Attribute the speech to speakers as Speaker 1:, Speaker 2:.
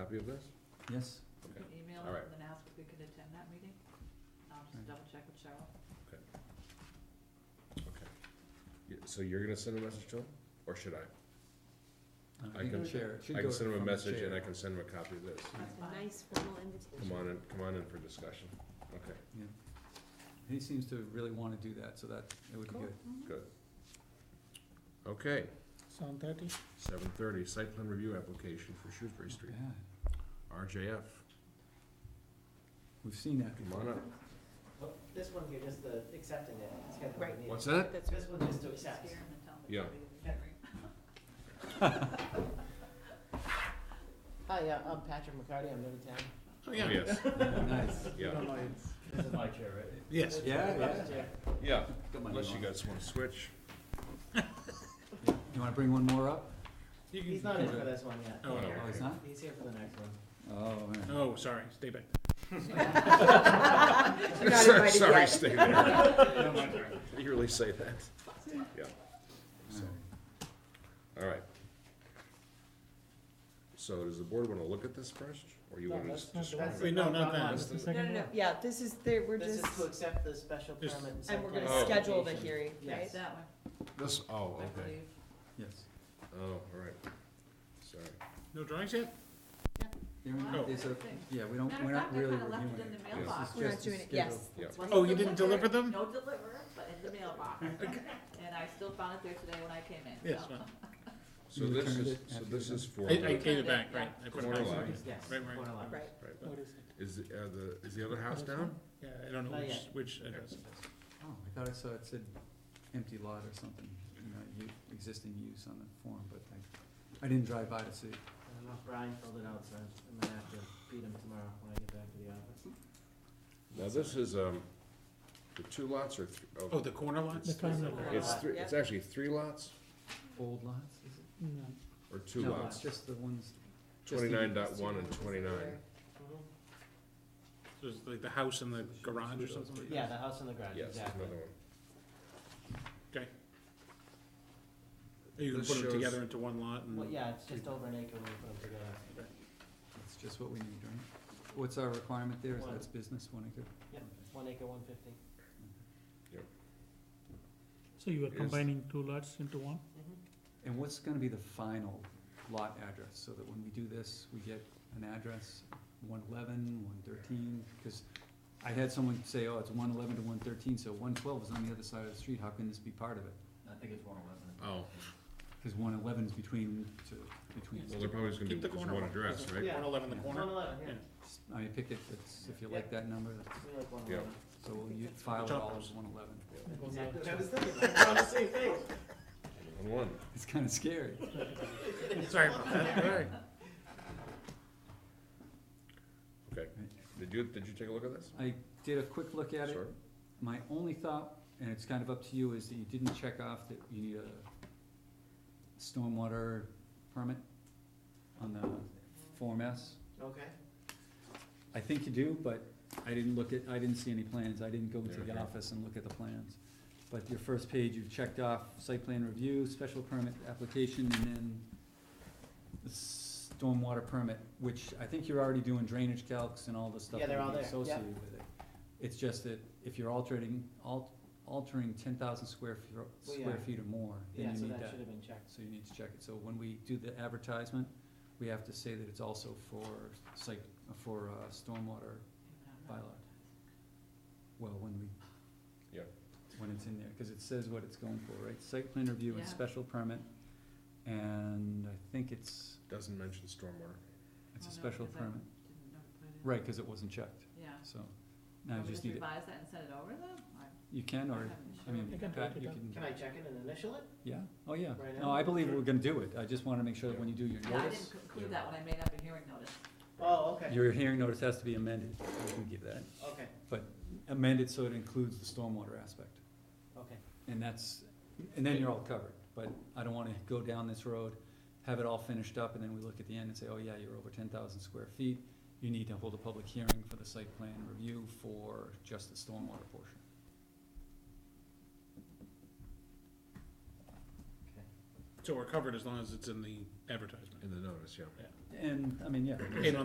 Speaker 1: Copy of this?
Speaker 2: Yes,
Speaker 1: Okay.
Speaker 3: Can email
Speaker 1: All right.
Speaker 3: them and ask if we could attend that meeting? I'll just
Speaker 2: Right.
Speaker 3: double check with Cheryl.
Speaker 1: Okay. Yeah, So you're gonna send a message to him, or should I?
Speaker 2: Uh,
Speaker 1: I
Speaker 2: you
Speaker 1: can-
Speaker 2: share. it should
Speaker 1: I can
Speaker 2: go
Speaker 1: send him a
Speaker 2: from the
Speaker 1: message and I
Speaker 2: chair.
Speaker 1: can send him a copy of this.
Speaker 3: That's
Speaker 4: A
Speaker 3: fine.
Speaker 4: nice formal invitation.
Speaker 1: Come on in, come on in for discussion. Okay,
Speaker 2: Yeah. He seems to really wanna do that, so that, it would be
Speaker 1: Cool.
Speaker 2: good.
Speaker 1: okay,
Speaker 5: Seven thirty?
Speaker 1: seven thirty, site plan review application for Shrewsbury
Speaker 2: Not
Speaker 1: Street,
Speaker 2: bad.
Speaker 1: RJF,
Speaker 2: We've seen that
Speaker 1: come
Speaker 2: before.
Speaker 1: on up.
Speaker 6: This one here, just the accepting it, it's kind of
Speaker 4: Right.
Speaker 6: neat.
Speaker 1: What's that?
Speaker 4: That's
Speaker 6: This
Speaker 4: right.
Speaker 6: one just to accept.
Speaker 3: Scare 'em and tell them
Speaker 1: Yeah.
Speaker 3: to leave the room.
Speaker 6: Hi, uh, I'm Patrick McCarty, I'm new to town.
Speaker 1: Oh, Yes,
Speaker 2: Nice.
Speaker 1: yeah,
Speaker 6: This is my chair, right?
Speaker 1: yes,
Speaker 2: Yeah, yeah.
Speaker 1: yeah,
Speaker 2: Got my
Speaker 1: unless
Speaker 2: name
Speaker 1: you
Speaker 2: on
Speaker 1: guys wanna switch.
Speaker 2: it. You wanna bring one more up?
Speaker 6: He's not in for this one yet.
Speaker 5: Oh,
Speaker 2: Oh, it's not?
Speaker 6: He's here for the next one.
Speaker 2: Oh, man.
Speaker 5: Oh, sorry, stay back.
Speaker 4: You're not invited
Speaker 1: Sorry,
Speaker 4: yet.
Speaker 1: stay there.
Speaker 5: No, my turn.
Speaker 1: Did you really say that? Yeah. So, all right. So does the board wanna look at this first, or you
Speaker 6: No,
Speaker 1: wanna
Speaker 6: that's
Speaker 1: just?
Speaker 6: not-
Speaker 1: just-
Speaker 6: that's-
Speaker 5: Wait, no, not
Speaker 6: Not
Speaker 5: that,
Speaker 6: on.
Speaker 5: it's the
Speaker 4: No,
Speaker 5: second
Speaker 4: no,
Speaker 5: one.
Speaker 4: no, yeah, this is, there, we're
Speaker 6: This
Speaker 4: just,
Speaker 6: is to accept the special
Speaker 5: Just-
Speaker 6: permit and site
Speaker 4: and we're
Speaker 6: plan
Speaker 4: gonna
Speaker 1: Oh.
Speaker 4: schedule the
Speaker 6: application.
Speaker 4: hearing, right?
Speaker 6: Yes.
Speaker 3: That one,
Speaker 1: This, oh,
Speaker 3: I
Speaker 1: okay.
Speaker 3: believe.
Speaker 2: Yes.
Speaker 1: Oh, all right. Sorry.
Speaker 5: No drawings yet?
Speaker 2: There we-
Speaker 3: Wow.
Speaker 2: there's a-
Speaker 3: Thanks.
Speaker 2: Yeah, we don't,
Speaker 3: Matter
Speaker 2: we're
Speaker 3: of
Speaker 2: not
Speaker 3: fact, I
Speaker 2: really
Speaker 3: kinda left
Speaker 2: reviewing
Speaker 3: it in
Speaker 2: it.
Speaker 3: the
Speaker 1: Yes.
Speaker 3: mailbox.
Speaker 2: This is
Speaker 4: We're not
Speaker 2: just
Speaker 4: doing it,
Speaker 2: scheduled.
Speaker 4: yes.
Speaker 1: Yeah.
Speaker 4: It's one
Speaker 5: Oh,
Speaker 4: of
Speaker 5: you
Speaker 4: those-
Speaker 5: didn't deliver them?
Speaker 3: No deliverer, but in the mailbox. And I still found it there today when I came in,
Speaker 5: Yes,
Speaker 3: so.
Speaker 5: well,
Speaker 1: So
Speaker 2: You
Speaker 1: this
Speaker 2: returned
Speaker 1: is,
Speaker 2: it
Speaker 1: so
Speaker 2: after
Speaker 1: this
Speaker 2: you
Speaker 1: is for,
Speaker 5: I, I
Speaker 1: the-
Speaker 5: gave it back, right, I put it
Speaker 1: Corner
Speaker 5: back.
Speaker 1: line.
Speaker 6: Yes.
Speaker 5: Right, right.
Speaker 6: corner line.
Speaker 4: Right,
Speaker 1: right,
Speaker 5: What is
Speaker 1: is, the- uh, the, is the other house
Speaker 5: What is
Speaker 1: down?
Speaker 5: Yeah, I don't know
Speaker 6: Not
Speaker 5: which,
Speaker 6: yet.
Speaker 5: which address it is.
Speaker 2: Oh, I thought I saw it said empty lot or something, you know, u- existing use on the form, but I, I didn't drive by to see.
Speaker 6: I don't know if Brian filled it out, so I'm gonna have to beat him tomorrow when I get back to the office.
Speaker 1: Now, this is, um, the two lots or, th-
Speaker 5: Oh,
Speaker 1: oh,
Speaker 5: the corner lots? The
Speaker 6: corner lot.
Speaker 1: it's three, it's actually three lots
Speaker 2: Old lots, is it?
Speaker 4: Mm-hmm.
Speaker 1: or two
Speaker 2: No,
Speaker 1: lots?
Speaker 2: it's just the ones, just the-
Speaker 1: Twenty-nine dot one and
Speaker 4: This is
Speaker 1: twenty-nine.
Speaker 4: there.
Speaker 5: So it's like the house and the garage or something like that?
Speaker 6: Yeah, the house and the garage,
Speaker 1: Yes, Mm-hmm. there's
Speaker 6: exactly.
Speaker 1: another one.
Speaker 5: Or You can
Speaker 1: This
Speaker 5: put them
Speaker 1: shows-
Speaker 5: together into one lot and?
Speaker 6: Well, yeah, it's just over an acre when we put them together.
Speaker 2: that's just what we need, right? What's our requirement there, is
Speaker 6: One.
Speaker 2: that's business, one acre?
Speaker 6: Yep, one acre, one fifty.
Speaker 5: So you
Speaker 1: are combining
Speaker 5: two lots into one?
Speaker 2: And what's gonna be the final lot address, so that when we do this, we get an address, one eleven, one thirteen? Because I had someone say, oh, it's one eleven to one thirteen, so one twelve is on the other side of the street, how can this be part of it?
Speaker 6: I think it's one eleven.
Speaker 1: Oh,
Speaker 2: Because one eleven is between, two between,
Speaker 1: well, they're probably just gonna do
Speaker 5: Keep the
Speaker 1: just
Speaker 5: corner
Speaker 1: one
Speaker 5: one.
Speaker 1: address, right?
Speaker 6: Yeah.
Speaker 5: One eleven the corner?
Speaker 6: One eleven, yeah,
Speaker 2: I mean, pick it, that's, if you like that number, that's-
Speaker 6: we like one
Speaker 1: Yeah.
Speaker 6: eleven.
Speaker 2: so we'll u- file it all as one eleven.
Speaker 6: Exactly what I was thinking, like, we're on the same page.
Speaker 1: On one.
Speaker 2: It's kinda scary.
Speaker 5: Sorry about that. All right.
Speaker 1: Okay. Did you, did you take a look at this?
Speaker 2: I did a quick look at it,
Speaker 1: Sure.
Speaker 2: My only thought, and it's kind of up to you, is that you didn't check off that you need a stormwater permit on the Form S.
Speaker 6: Okay.
Speaker 2: I think you do, but I didn't look at, I didn't see any plans, I didn't go into the
Speaker 1: Okay.
Speaker 2: office and look at the plans. But your first page, you've checked off site plan review, special permit application, and then the stormwater permit, which I think you're already doing drainage calcs and all the stuff
Speaker 6: Yeah,
Speaker 2: that
Speaker 6: they're all
Speaker 2: would be
Speaker 6: there, yeah.
Speaker 2: associated with it. It's just that if you're altering, al- altering ten thousand square feet,
Speaker 6: Well,
Speaker 2: square
Speaker 6: yeah.
Speaker 2: feet or more,
Speaker 6: Yeah,
Speaker 2: then
Speaker 6: so
Speaker 2: you need
Speaker 6: that should have been checked.
Speaker 2: so you need to check it. So when we do the advertisement, we have to say that it's also for site, for uh, stormwater bylaw. Well, when we.
Speaker 1: Yeah.
Speaker 2: When it's in there, cause it says what it's going for, right? Site plan review and
Speaker 3: Yeah.
Speaker 2: special permit. And I think it's,
Speaker 1: Doesn't mention stormwater.
Speaker 2: it's a
Speaker 3: Well, no,
Speaker 2: special
Speaker 3: 'cause I
Speaker 2: permit,
Speaker 3: Didn't know to put it in.
Speaker 2: right, cause it wasn't checked,
Speaker 3: Yeah.
Speaker 2: so. Now you
Speaker 3: Want me
Speaker 2: just need it.
Speaker 3: revise that and send it over then? I-
Speaker 2: You can,
Speaker 3: I
Speaker 2: or,
Speaker 3: haven't
Speaker 2: I
Speaker 3: sure.
Speaker 2: mean,
Speaker 5: I can
Speaker 2: Pat,
Speaker 5: type it
Speaker 2: you
Speaker 5: up.
Speaker 2: can,
Speaker 6: Can I check it and initial it?
Speaker 2: yeah, oh, yeah.
Speaker 6: Right
Speaker 2: No,
Speaker 6: now?
Speaker 2: I believe we're gonna do it. I just wanna make sure that
Speaker 1: Yeah.
Speaker 2: when you do your
Speaker 3: Yeah, I
Speaker 2: notice.
Speaker 3: didn't include that when I made up a hearing notice.
Speaker 6: Oh, okay,
Speaker 2: Your hearing notice has to be amended, we can give that,
Speaker 6: okay,
Speaker 2: amended so it includes the stormwater aspect,
Speaker 6: okay.
Speaker 2: and that's, and then you're all covered. But I don't wanna go down this road, have it all finished up, and then we look at the end and say, oh yeah, you're over ten thousand square feet, you need to hold a public hearing for the site plan review for just the stormwater portion.
Speaker 5: So we're covered as long as it's in the advertisement.
Speaker 1: in the notice, yeah.
Speaker 2: And, I mean, yeah.
Speaker 5: And